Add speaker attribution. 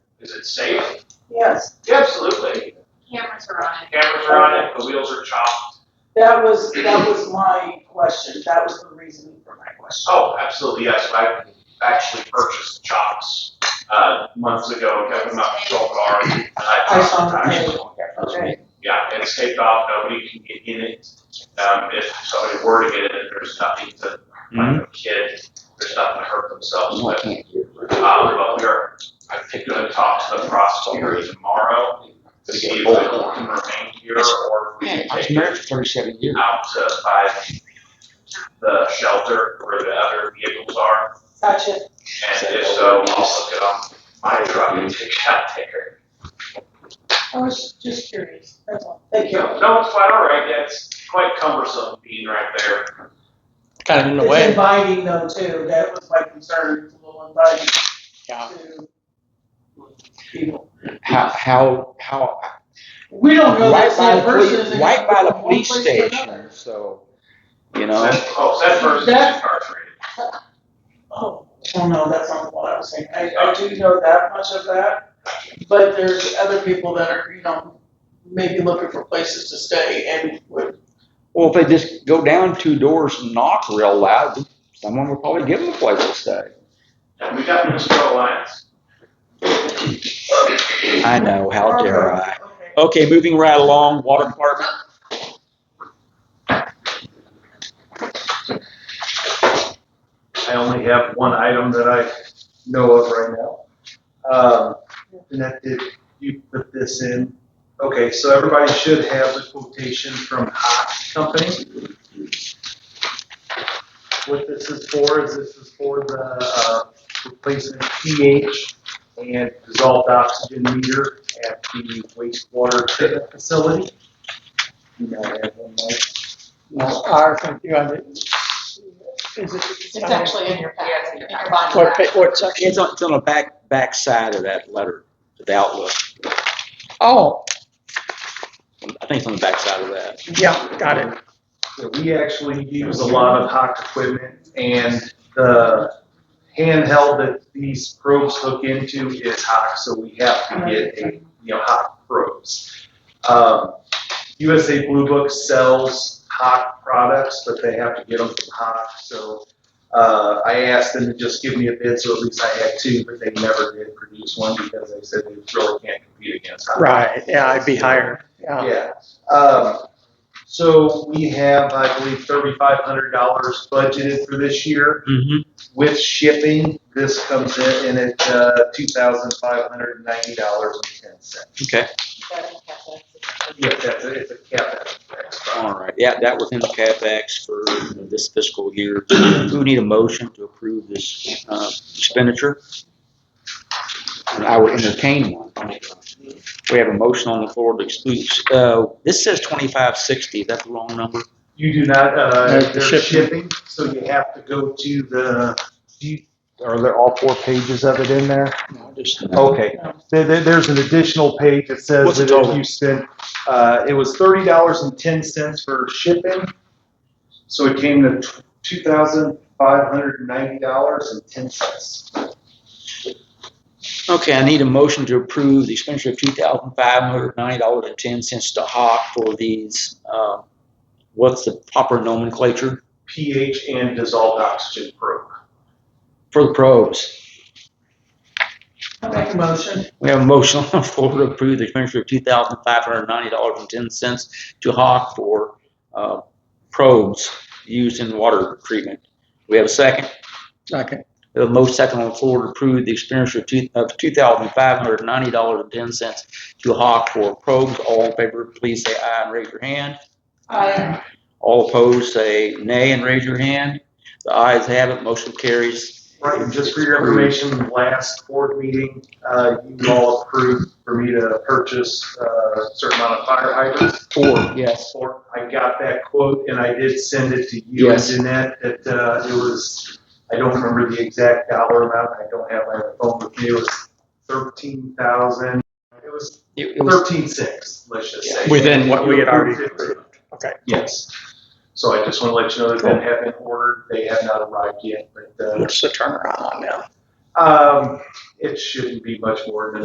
Speaker 1: Is it safe?
Speaker 2: Yes,
Speaker 1: Yeah, absolutely.
Speaker 3: Cameras are on it.
Speaker 1: Cameras are on it, the wheels are chopped.
Speaker 2: that was, that was my question, that was the reason for my question.
Speaker 1: Oh, absolutely, yes. I actually purchased chops, uh, months ago, kept them out of control car. and
Speaker 2: I saw
Speaker 1: chopped
Speaker 2: that.
Speaker 1: them.
Speaker 2: Okay,
Speaker 1: Yeah, it's taped off, nobody can get in it. Um, if somebody were to get in it, there's nothing to, like a kid, there's nothing to hurt themselves with. Um, but we are, I think, gonna talk to the prosecutor tomorrow to see if they can remain here or if we can
Speaker 4: I was
Speaker 1: take
Speaker 4: married
Speaker 1: it
Speaker 4: for thirty-seven years.
Speaker 1: out to by the shelter where the other vehicles are.
Speaker 2: gotcha,
Speaker 1: And if so, I'll look it on my truck and take it out there.
Speaker 2: I was just curious, that's all, thank you.
Speaker 1: No, it's quite all right. Yeah, it's quite cumbersome being right there.
Speaker 4: Kind of in the
Speaker 2: It's
Speaker 4: way.
Speaker 2: inviting though too, that was my concern, it's a little inviting
Speaker 4: Yeah.
Speaker 2: to people.
Speaker 4: How, how, how,
Speaker 2: We don't know
Speaker 4: right
Speaker 2: that
Speaker 4: by Oh, the
Speaker 2: that person
Speaker 4: police,
Speaker 2: is.
Speaker 4: right by the
Speaker 2: from one
Speaker 4: police
Speaker 2: place to
Speaker 4: station,
Speaker 2: another.
Speaker 4: so, you know.
Speaker 1: That- Oh, that person's
Speaker 2: That-
Speaker 1: incarcerated.
Speaker 2: Oh, well, no, that's not what I was saying, I, I do know that much of that, but there's other people that are, you know, maybe looking for places to stay and would,
Speaker 4: Well, if they just go down two doors and knock real loud, someone would probably give them a place to stay.
Speaker 1: And we got Minnesota Alliance.
Speaker 4: I know, how dare
Speaker 2: okay.
Speaker 4: I. Okay, moving right along, water department.
Speaker 5: I only have one item that I know of right now. Um, and that did, you put this in. Okay, so everybody should have the quotation from Hot Company. What this is for is this is for the, uh, replacement pH and dissolved oxygen meter at the wastewater treatment facility. You know, I have one more.
Speaker 6: No, ours and you have it. Is it?
Speaker 3: It's actually in your packet, in your body
Speaker 6: What,
Speaker 3: packet.
Speaker 6: pa- what section?
Speaker 4: It's on, it's on the back, back side of that letter, the outlook.
Speaker 6: Oh,
Speaker 4: I think it's on the back side of that.
Speaker 6: yeah, got it.
Speaker 5: So we actually use a lot of Hawk equipment and the handheld that these probes hook into is Hawk, so we have to get a, you know, Hawk probes. Um, USA Blue Book sells Hawk products, but they have to get them from Hawk, so, uh, I asked them to just give me a bid, so at least I had two, but they never did produce one because they said they really can't compete against Hawk.
Speaker 6: Right, yeah, I'd be higher, yeah.
Speaker 5: Yeah, um, so we have, I believe, thirty-five hundred dollars budgeted for this year.
Speaker 4: Mm-hmm.
Speaker 5: With shipping, this comes in, in at, uh, two thousand five hundred and ninety dollars and ten cents.
Speaker 4: Okay,
Speaker 5: Yeah, that's, a- it's a capex.
Speaker 4: all right. Yeah, that was in the CapEx for this fiscal year. Do we need a motion to approve this uh, expenditure? And I would entertain one. We have a motion on the floor to exclude, uh, this says twenty-five sixty. Is that the wrong number?
Speaker 5: You do not, uh,
Speaker 6: No, the
Speaker 5: there's
Speaker 6: shipping.
Speaker 5: shipping, so you have to go to the, do you- are there all four pages of it in there?
Speaker 4: No, just. Oh,
Speaker 5: Okay, there, there- there's an additional page that says
Speaker 4: What's the
Speaker 5: that if
Speaker 4: total?
Speaker 5: you spent, uh, it was thirty dollars and ten cents for shipping. So it came to two thousand five hundred and ninety dollars and ten cents.
Speaker 4: Okay, I need a motion to approve the expenditure of two thousand five hundred ninety dollars and ten cents to Hawk for these, uh, what's the proper nomenclature
Speaker 5: pH and dissolved oxygen probe.
Speaker 4: for the probes?
Speaker 2: I make a motion,
Speaker 4: We have a motion on the floor to approve the expenditure of two thousand five hundred ninety dollars and ten cents to Hawk for, uh, probes used in water treatment. We have a second?
Speaker 6: Second,
Speaker 4: The most second on the floor to approve the expenditure of two, of two thousand five hundred ninety dollars and ten cents to Hawk for probes. All in favor, please say aye and raise your hand.
Speaker 2: I,
Speaker 4: All opposed, say nay and raise your hand. The ayes have it, motion carries.
Speaker 5: Right, and just for your information, last board meeting, uh, you all approved for me to purchase, uh, a certain amount of fire hydrants.
Speaker 4: Four, yes.
Speaker 5: Or I got that quote and I did send it to you,
Speaker 4: Yes.
Speaker 5: Jeanette, that, uh, it was, I don't remember the exact dollar amount, I don't have my phone with me, it was thirteen thousand, it was
Speaker 4: It it was,
Speaker 5: thirteen six, let's just say.
Speaker 6: Within what we had already
Speaker 5: You approved it.
Speaker 6: okay.
Speaker 5: Yes. So I just wanna let you know that that had been ordered, they have not arrived yet, but, uh,
Speaker 6: What's the turnaround on that?
Speaker 5: um, it shouldn't be much more than